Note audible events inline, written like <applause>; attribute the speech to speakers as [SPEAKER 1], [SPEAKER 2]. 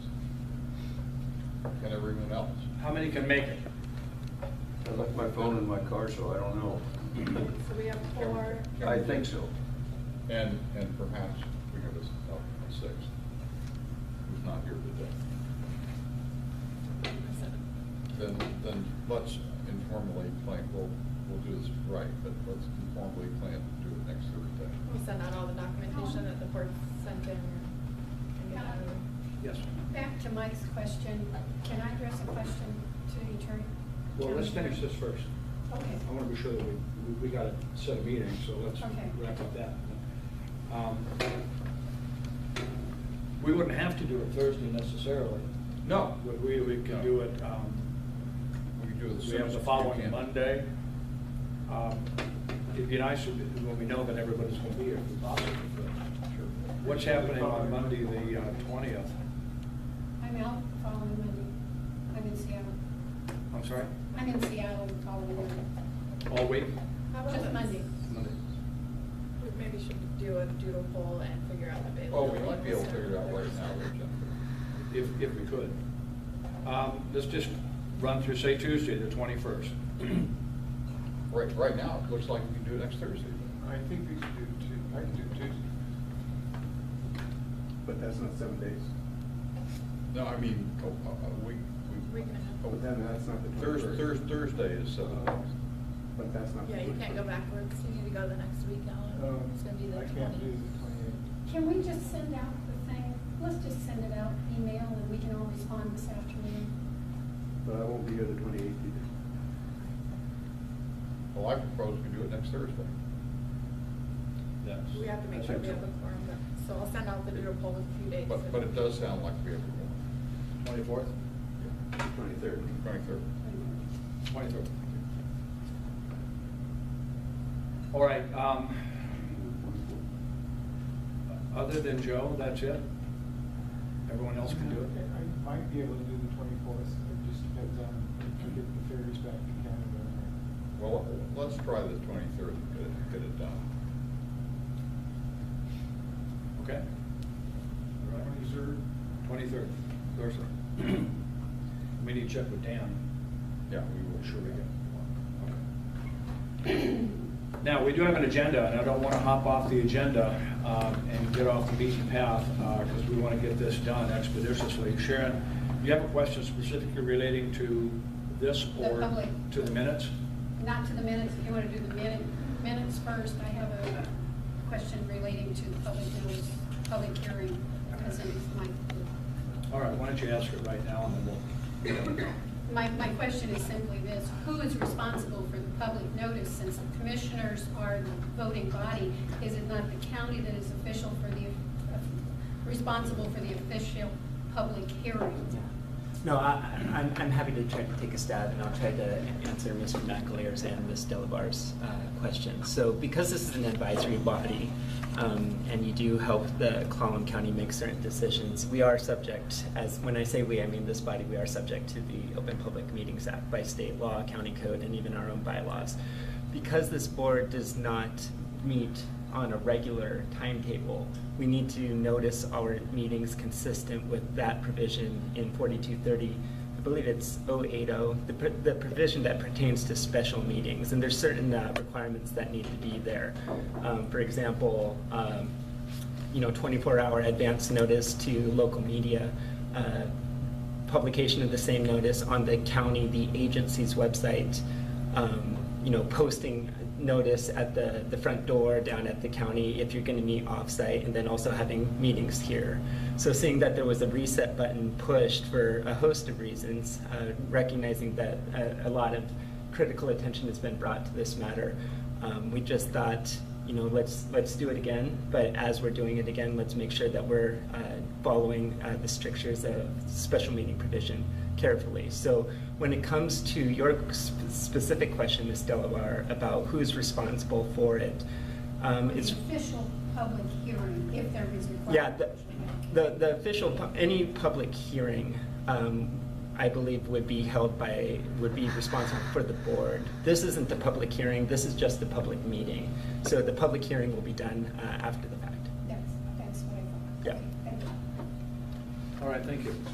[SPEAKER 1] Can everyone else?
[SPEAKER 2] How many can make it?
[SPEAKER 3] I left my phone in my car, so I don't know.
[SPEAKER 4] So we have four,
[SPEAKER 3] I think so.
[SPEAKER 1] And, and perhaps we have a, a sixth, who's not here today. Then, then let's informally plan, we'll, we'll do this right, but let's informally plan to do it next Thursday.
[SPEAKER 4] we'll send out all the documentation that the board sent in. and get it over.
[SPEAKER 2] Yes.
[SPEAKER 5] Back to Mike's question, can I address a question to the attorney?
[SPEAKER 2] Well, let's finish this first.
[SPEAKER 5] Okay.
[SPEAKER 2] I want to be sure that we, we- we got a set of meetings, so let's
[SPEAKER 5] Okay.
[SPEAKER 2] wrap up that. Um, We wouldn't have to do it Thursday necessarily.
[SPEAKER 1] No.
[SPEAKER 2] We- We, we could do it, um,
[SPEAKER 1] We can do it as
[SPEAKER 2] we
[SPEAKER 1] soon
[SPEAKER 2] have
[SPEAKER 1] as
[SPEAKER 2] the
[SPEAKER 1] we
[SPEAKER 2] following
[SPEAKER 1] can.
[SPEAKER 2] Monday. Um, It'd be nice if- when we know that everybody's going to be here, if possible.
[SPEAKER 1] Sure.
[SPEAKER 2] What's happening on Monday, the uh, twentieth?
[SPEAKER 5] I'm out following Monday. I'm in Seattle.
[SPEAKER 2] I'm sorry?
[SPEAKER 5] I'm in Seattle following Monday.
[SPEAKER 2] All week?
[SPEAKER 4] How about
[SPEAKER 5] Just
[SPEAKER 4] this?
[SPEAKER 5] Monday.
[SPEAKER 2] Monday.
[SPEAKER 4] We maybe should do a doodle poll and figure out the
[SPEAKER 1] Oh,
[SPEAKER 4] availability.
[SPEAKER 1] we might be able to figure it out right now, though, Jennifer.
[SPEAKER 2] if, if we could. Um, Let's just run through, say Tuesday, the 21st.
[SPEAKER 1] Right, right now, it looks like we can do it next Thursday.
[SPEAKER 6] I think we should do two, I can do Tuesday. But that's not seven days.
[SPEAKER 1] No, I mean, a, a a week, we.
[SPEAKER 4] Week and a half.
[SPEAKER 6] But then Oh, that's not the
[SPEAKER 1] Thursday,
[SPEAKER 6] 21st.
[SPEAKER 1] Thursday is, uh,
[SPEAKER 6] But that's not. the
[SPEAKER 4] Yeah, you can't go
[SPEAKER 6] 21st.
[SPEAKER 4] backwards, you need to go the next week, Alan,
[SPEAKER 6] Um,
[SPEAKER 4] it's gonna be the
[SPEAKER 6] I
[SPEAKER 4] twenty.
[SPEAKER 6] can't do the twenty-eighth.
[SPEAKER 5] Can we just send out the thing, let's just send it out, email, and we can all respond this afternoon?
[SPEAKER 6] But I won't be here the twenty-eighth either.
[SPEAKER 1] well, I propose we do it next Thursday.
[SPEAKER 2] That's-
[SPEAKER 4] We have to make
[SPEAKER 2] I
[SPEAKER 4] sure
[SPEAKER 2] think
[SPEAKER 4] we have
[SPEAKER 2] so.
[SPEAKER 4] a quorum, but- so I'll send out the doodle poll with a few dates.
[SPEAKER 1] But, but it does sound like we have a
[SPEAKER 2] 24th?
[SPEAKER 6] Twenty-third.
[SPEAKER 1] twenty-third.
[SPEAKER 2] 23rd. All right. um, Other than Joe, that's it? Everyone else can do
[SPEAKER 7] I
[SPEAKER 2] it?
[SPEAKER 7] I might be able to do the twenty-fourth, it just depends on if we get the ferries back to Canada.
[SPEAKER 1] Well, let's try the twenty-third and get it, get it done.
[SPEAKER 2] Okay? All right. 23rd,
[SPEAKER 7] Twenty-third,
[SPEAKER 2] Thursday. <clears throat> We need to check with Dan.
[SPEAKER 1] Yeah, we will,
[SPEAKER 2] Sure
[SPEAKER 1] sure
[SPEAKER 2] we
[SPEAKER 1] we
[SPEAKER 2] can.
[SPEAKER 1] can.
[SPEAKER 2] Now, we do have an agenda, and I don't want to hop off the agenda um, and get off the beaten path, because we want to get this done expeditiously. Sharon, do you have a question specifically relating to this
[SPEAKER 5] The
[SPEAKER 2] or
[SPEAKER 5] public.
[SPEAKER 2] to the minutes?
[SPEAKER 5] Not to the minutes, if you want to do the minute- minutes first, I have a question relating to the public notice, public hearing, because it is my
[SPEAKER 2] All right, why don't you ask it right now, and then we'll...
[SPEAKER 5] My, my question is simply this, who is responsible for the public notice since the commissioners are the voting body? Is it not the county that is official for the, responsible for the official public hearing?
[SPEAKER 8] No, I, I'm, I'm happy to try to take a stab, and I'll try to answer Mr. McAleer's and Ms. Delabar's uh, questions. So because this is an advisory body, um, and you do help the Clallam County make certain decisions, we are subject, as, when I say we, I mean this body, we are subject to the Open Public Meetings Act by state law, county code, and even our own bylaws. Because this board does not meet on a regular timetable. We need to notice our meetings consistent with that provision in 4230. I believe it's 080, the pr- the provision that pertains to special meetings. And there's certain uh, requirements that need to be there. Um, For example, um, you know, 24-hour advance notice to local media, uh, publication of the same notice on the county, the agency's website, um, you know, posting notice at the, the front door down at the county if you're gonna meet offsite, and then also having meetings here. So seeing that there was a reset button pushed for a host of reasons, uh, recognizing that uh, a, a lot of critical attention has been brought to this matter, um, we just thought, you know, let's, let's do it again, but as we're doing it again, let's make sure that we're uh, following uh, the strictures of special meeting provision carefully. So when it comes to your sp- specific question, Ms. Delawar, about who's responsible for it, um,
[SPEAKER 5] The
[SPEAKER 8] it's
[SPEAKER 5] official public hearing, if there is required.
[SPEAKER 8] yeah, the, the, the official, pu- any public hearing, um, I believe would be held by, would be responsible for the board. This isn't the public hearing, this is just the public meeting. So the public hearing will be done, uh, after the fact.
[SPEAKER 5] That's, that's what I thought.
[SPEAKER 8] Yeah.
[SPEAKER 5] Thank you.
[SPEAKER 2] All right, thank you.